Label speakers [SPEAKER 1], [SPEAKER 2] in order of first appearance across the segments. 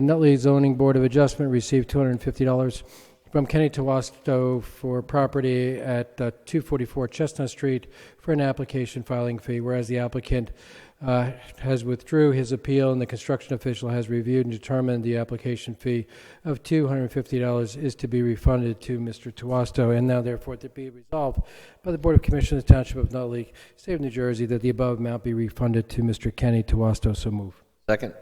[SPEAKER 1] Nutley Zoning Board of Adjustment received $250 from Kenny Tawasto for property at uh, 244 Chestnut Street for an application filing fee, whereas the applicant uh, has withdrew his appeal and the construction official has reviewed and determined the application fee of $250 is to be refunded to Mr. Tawasto, and now therefore to be resolved by the Board of Commissioners of the Township of Nutley, State of New Jersey, that the above amount be refunded to Mr. Kenny Tawasto. So move.
[SPEAKER 2] Second.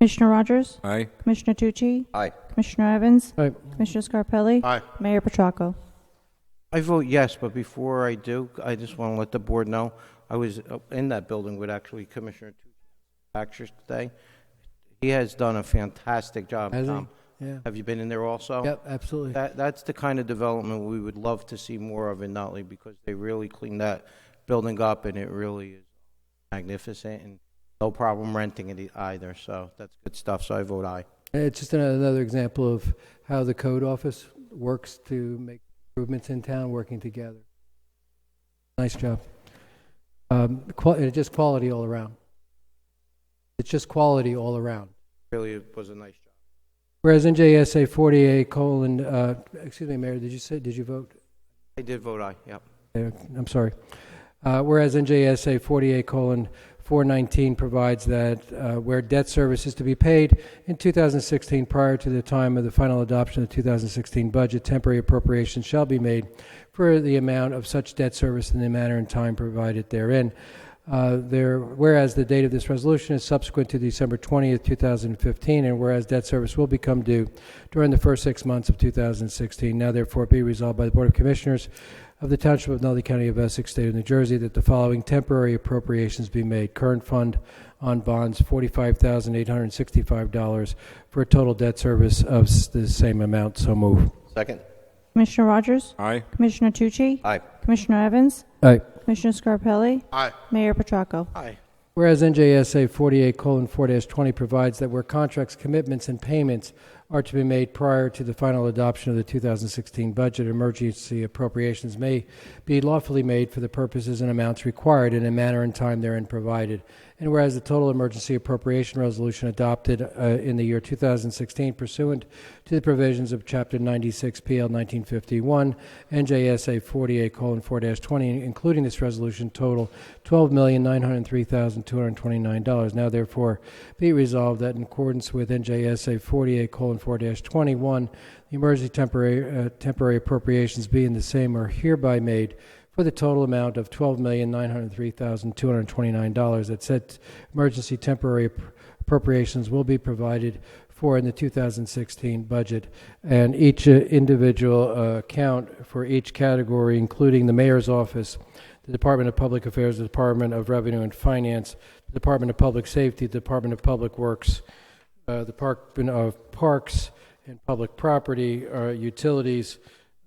[SPEAKER 3] Commissioner Rogers?
[SPEAKER 4] Aye.
[SPEAKER 3] Commissioner Tucci?
[SPEAKER 2] Aye.
[SPEAKER 3] Commissioner Evans?
[SPEAKER 1] All right.
[SPEAKER 3] Commissioner Scarpelli?
[SPEAKER 5] Aye.
[SPEAKER 3] Mayor Petracco?
[SPEAKER 5] I vote yes, but before I do, I just want to let the board know, I was uh, in that building with actually Commissioner Tucci today. He has done a fantastic job,
[SPEAKER 1] Has he?
[SPEAKER 5] Tom.
[SPEAKER 1] Yeah.
[SPEAKER 5] Have you been in there also?
[SPEAKER 1] Yep, absolutely.
[SPEAKER 5] That, that's the kind of development we would love to see more of in Nutley, because they really cleaned that building up, and it really is magnificent, and no problem renting it e-, either, so that's good stuff, so I vote aye.
[SPEAKER 1] It's Uh, just ano- another example of how the code office works to make improvements in town, working together. Nice job. Um, qual- it's just quality all around. It's just quality all around.
[SPEAKER 5] Really, it was a nice job.
[SPEAKER 1] Whereas NJSA 48 colon, uh, excuse me, Mayor, did you say, did you vote?
[SPEAKER 5] I did vote aye, yep.
[SPEAKER 1] Uh, I'm sorry. Uh, Whereas NJSA 48 colon 419 provides that uh, where debt service is to be paid in 2016 prior to the time of the final adoption of the 2016 budget, temporary appropriations shall be made for the amount of such debt service in the manner and time provided therein. Uh, There, whereas the date of this resolution is subsequent to December 20th, 2015, and whereas debt service will become due during the first six months of 2016, now therefore be resolved by the Board of Commissioners of the Township of Nutley County of Essex, State of New Jersey, that the following temporary appropriations be made. Current fund on bonds, $45,865 for a total debt service of s- the same amount. So move.
[SPEAKER 2] Second.
[SPEAKER 3] Commissioner Rogers?
[SPEAKER 4] Aye.
[SPEAKER 3] Commissioner Tucci?
[SPEAKER 2] Aye.
[SPEAKER 3] Commissioner Evans?
[SPEAKER 1] Aye.
[SPEAKER 3] Commissioner Scarpelli?
[SPEAKER 5] Aye.
[SPEAKER 3] Mayor Petracco?
[SPEAKER 5] Aye.
[SPEAKER 1] Whereas NJSA 48:4-20 provides that where contracts, commitments, and payments are to be made prior to the final adoption of the 2016 budget, emergency appropriations may be lawfully made for the purposes and amounts required in a manner and time therein provided. And whereas the total emergency appropriation resolution adopted uh, in the year 2016 pursuant to the provisions of Chapter 96 PL 1951, NJSA 48:4-20, including this resolution, total $12,903,229. Now therefore be it resolved that in accordance with NJSA 48:4-21, the emergency temporary uh, temporary appropriations be in the same are hereby made for the total amount of $12,903,229 that said emergency temporary app- appropriations will be provided for in the 2016 budget. And each uh, individual uh, account for each category, including the mayor's office, the Department of Public Affairs, the Department of Revenue and Finance, the Department of Public Safety, the Department of Public Works, uh, the Department of Parks and Public Property, uh, Utilities,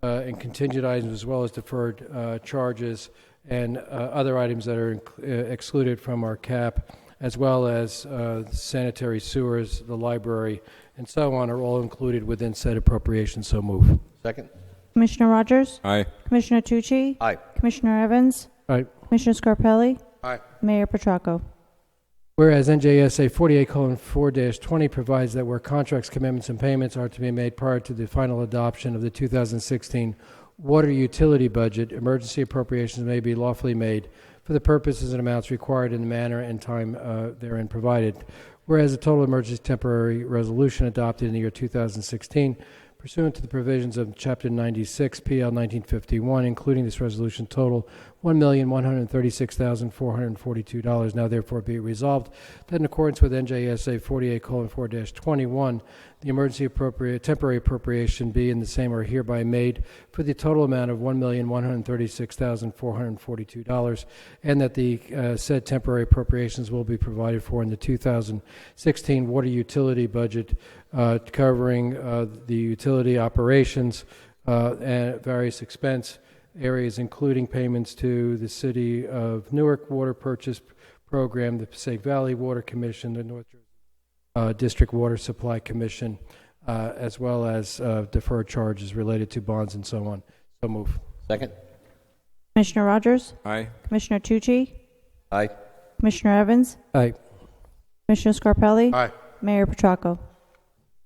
[SPEAKER 1] uh, and contingent items as well as deferred uh, charges and uh, other items that are inc- uh, excluded from our cap, as well as uh, sanitary sewers, the library, and so on, are all included within said appropriation. So move. All
[SPEAKER 2] Second.
[SPEAKER 3] Commissioner Rogers?
[SPEAKER 4] Aye.
[SPEAKER 3] Commissioner Tucci?
[SPEAKER 2] Aye.
[SPEAKER 3] Commissioner Evans?
[SPEAKER 1] right.
[SPEAKER 3] Commissioner Scarpelli?
[SPEAKER 5] Aye.
[SPEAKER 3] Mayor Petracco?
[SPEAKER 1] Whereas NJSA 48:4-20 provides that where contracts, commitments, and payments are to be made prior to the final adoption of the 2016 water utility budget, emergency appropriations may be lawfully made for the purposes and amounts required in the manner and time uh, therein provided. Whereas a total emergency temporary resolution adopted in the year 2016 pursuant to the provisions of Chapter 96 PL 1951, including this resolution, total $1,136,442. Now therefore be it resolved that in accordance with NJSA 48:4-21, the emergency appropriate, temporary appropriation be and the same are hereby made for the total amount of $1,136,442, and that the uh, said temporary appropriations will be provided for in the 2016 water utility budget uh, covering uh, the utility operations uh, and various expense areas, including payments to the City of Newark Water Purchase Program, the Passaic Valley Water Commission, the North Jersey uh, District Water Supply Commission, uh, as well as uh, deferred charges related to bonds and so on. So move.
[SPEAKER 2] Second.
[SPEAKER 3] Commissioner Rogers?
[SPEAKER 4] Aye.
[SPEAKER 3] Commissioner Tucci?
[SPEAKER 2] Aye.
[SPEAKER 3] Commissioner Evans?
[SPEAKER 1] Aye.
[SPEAKER 3] Commissioner Scarpelli?
[SPEAKER 5] Aye.
[SPEAKER 3] Mayor Petracco?